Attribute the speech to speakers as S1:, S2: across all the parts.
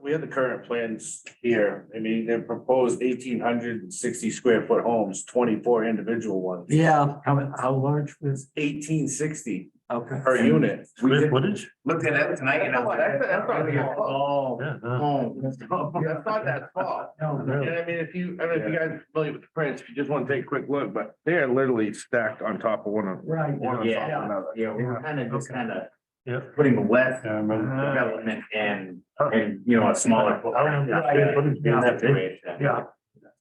S1: we have the current plans here. I mean, they proposed eighteen hundred and sixty square foot homes, twenty-four individual ones.
S2: Yeah, how, how large was,
S1: Eighteen sixty
S2: okay.
S1: per unit. We
S3: Square
S1: did-
S3: footage?
S1: looked at it tonight and I was like.
S4: That's- that's not really a
S1: Oh.
S3: Yeah, no.
S1: Homes.
S4: That's not that far.
S2: No,
S3: really.
S1: And I mean, if you, I don't know if you guys are familiar with the prints, if you just want to take a quick look, but they are literally stacked on top of one another.
S2: Right.
S1: one on top
S5: Yeah.
S1: of another.
S5: Yeah, we we're kind of just
S2: Okay.
S5: kind of
S3: Yeah.
S5: putting the west
S3: Yeah, I remember.
S2: Uh-huh.
S5: development and,
S2: Oh.
S5: and, you know, a smaller.
S3: I don't know. Square footage,
S5: footprint.
S3: yeah.
S5: That's the way it's done.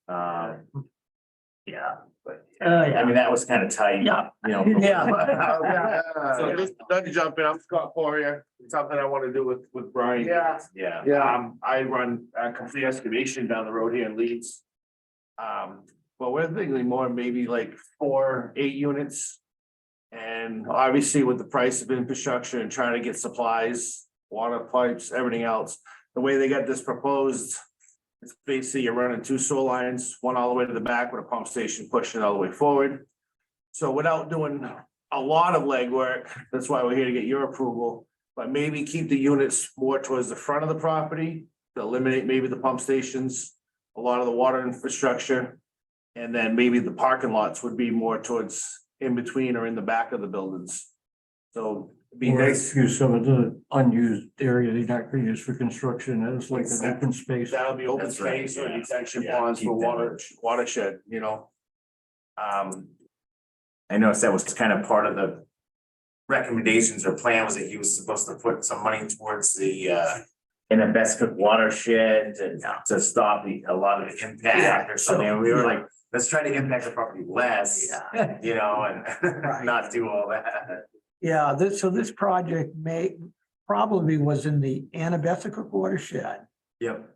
S2: Yeah.
S5: Um, Yeah, but,
S2: Uh,
S5: I
S2: yeah.
S5: mean, that was kind of tight.
S2: Yeah.
S5: You know.
S2: Yeah.
S1: So just, not to jump in, I'm Scott Poirier, something I want to do with, with Brian.
S4: Yeah.
S5: Yeah.
S4: Yeah.
S1: Um, I run uh complete excavation down the road here in Leeds. Um, but we're thinking more maybe like four, eight units. And obviously with the price of infrastructure and trying to get supplies, water pipes, everything else, the way they got this proposed. It's basically you're running two sewer lines, one all the way to the back with a pump station pushing it all the way forward. So without doing a lot of legwork, that's why we're here to get your approval. But maybe keep the units more towards the front of the property, to eliminate maybe the pump stations, a lot of the water infrastructure. And then maybe the parking lots would be more towards in between or in the back of the buildings. So it'd be
S2: Or
S1: nice,
S2: excuse some of the unused area they not going to use for construction, that is like an open space.
S1: that'll be open
S5: That's right,
S1: space or
S5: yeah.
S1: detention
S5: Yeah,
S1: ponds for
S5: keep that.
S1: water, watershed, you know? Um,
S5: I noticed that was kind of part of the recommendations or plan was that he was supposed to put some money towards the uh. In a best cook watershed and to stop the, a lot of the impact or something, and we were like, let's try to impact the property less, you know,
S2: Right.
S5: and not do all that.
S2: Yeah, this, so this project may, probably was in the Anabesica watershed
S5: Yep,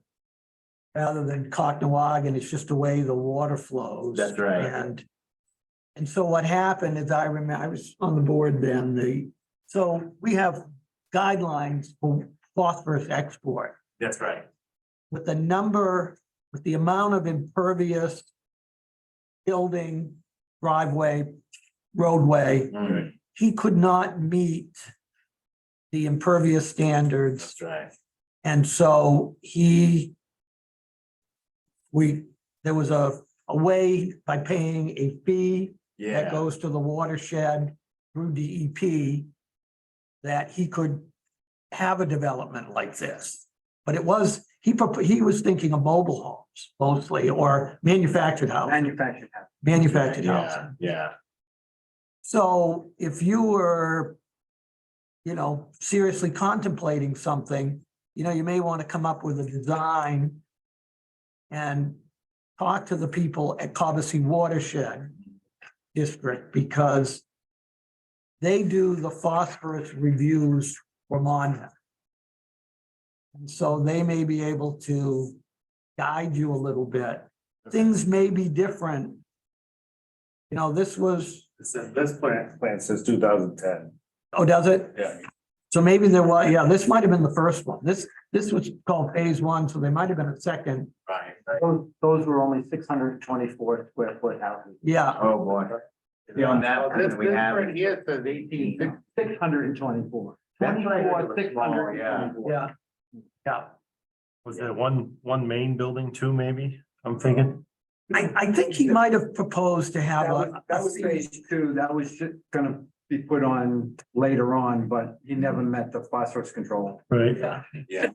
S2: rather than Cocknoag, and it's just the way the water flows.
S5: That's right.
S2: And, and so what happened is I remember, I was on the board then, the, so we have guidelines for phosphorus export.
S5: that's right,
S2: with the number, with the amount of impervious building, driveway, roadway,
S5: Mm,
S2: he could not meet the impervious standards,
S5: that's right,
S2: and so he we, there was a, a way by paying a fee that
S5: yeah,
S2: goes to the watershed through DEP that he could have a development like this. But it was, he, prop- he was thinking of mobile homes mostly, or manufactured housing,
S4: Manufactured house.
S2: manufactured
S5: yeah,
S2: housing.
S5: yeah,
S2: So if you were, you know, seriously contemplating something, you know, you may want to come up with a design and talk to the people at Cobussy Watershed District because they do the phosphorus reviews for Monmouth. And so they may be able to guide you a little bit. Things may be different. You know, this was
S1: this, this plant, plant since two thousand ten.
S2: Oh, does it?
S1: Yeah.
S2: So maybe there was, yeah, this might have been the first one. This, this was called phase one, so there might have been a second.
S5: right, right,
S4: Those, those were only six hundred and twenty-four square foot houses.
S2: Yeah,
S5: oh boy. Beyond that,
S1: This,
S5: we
S1: this
S5: have.
S1: right here says eighteen sixty.
S4: Six hundred and twenty-four.
S5: That's right, it was
S4: Twenty-four, six
S5: small,
S4: hundred
S5: yeah.
S4: and twenty-four.
S2: yeah, yeah.
S3: Was there one, one main building, two maybe? I'm thinking,
S2: I, I think he might have proposed to have
S4: That was,
S2: a.
S4: that was phase two, that was ju- gonna be put on later on, but he never met the phosphorus control.
S3: right?
S2: Yeah,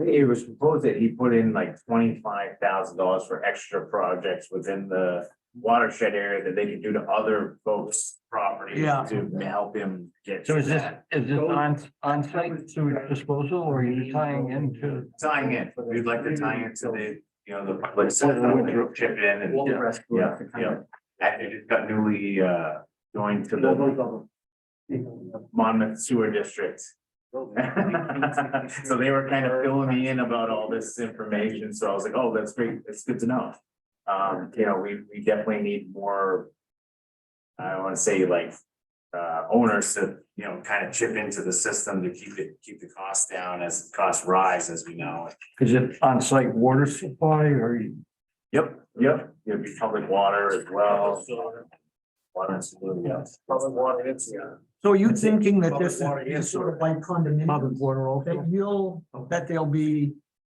S5: It was proposed that he put in like twenty-five thousand dollars for extra projects within the watershed area that they could do to other folks' property
S2: Yeah.
S5: to help him get.
S6: So
S5: to
S6: is this,
S5: that.
S6: is this on, on-site sewage disposal or are you tying into?
S5: Tying in, we'd like to tie into the, you know, the public system, they chip in
S4: All the
S5: and,
S4: rest were
S5: Yeah,
S4: 600.
S5: and it just got newly, uh, joined to the Monmouth Sewer District. So they were kind of filling me in about all this information, so I was like, oh, that's great, that's good to know. Um, you know, we, we definitely need more. I don't wanna say like, uh, owners to, you know, kind of chip into the system to keep it, keep the costs down as costs rise, as we know.
S6: Is it on-site water supply or? you-
S5: Yep, yep, it'd be public water as well. Water and sewer, yeah.
S1: Public water, it's, yeah.
S2: So are you thinking that this
S1: Public water
S2: is
S1: is-
S2: sort of like condominium?
S6: water
S2: That you'll, that there'll be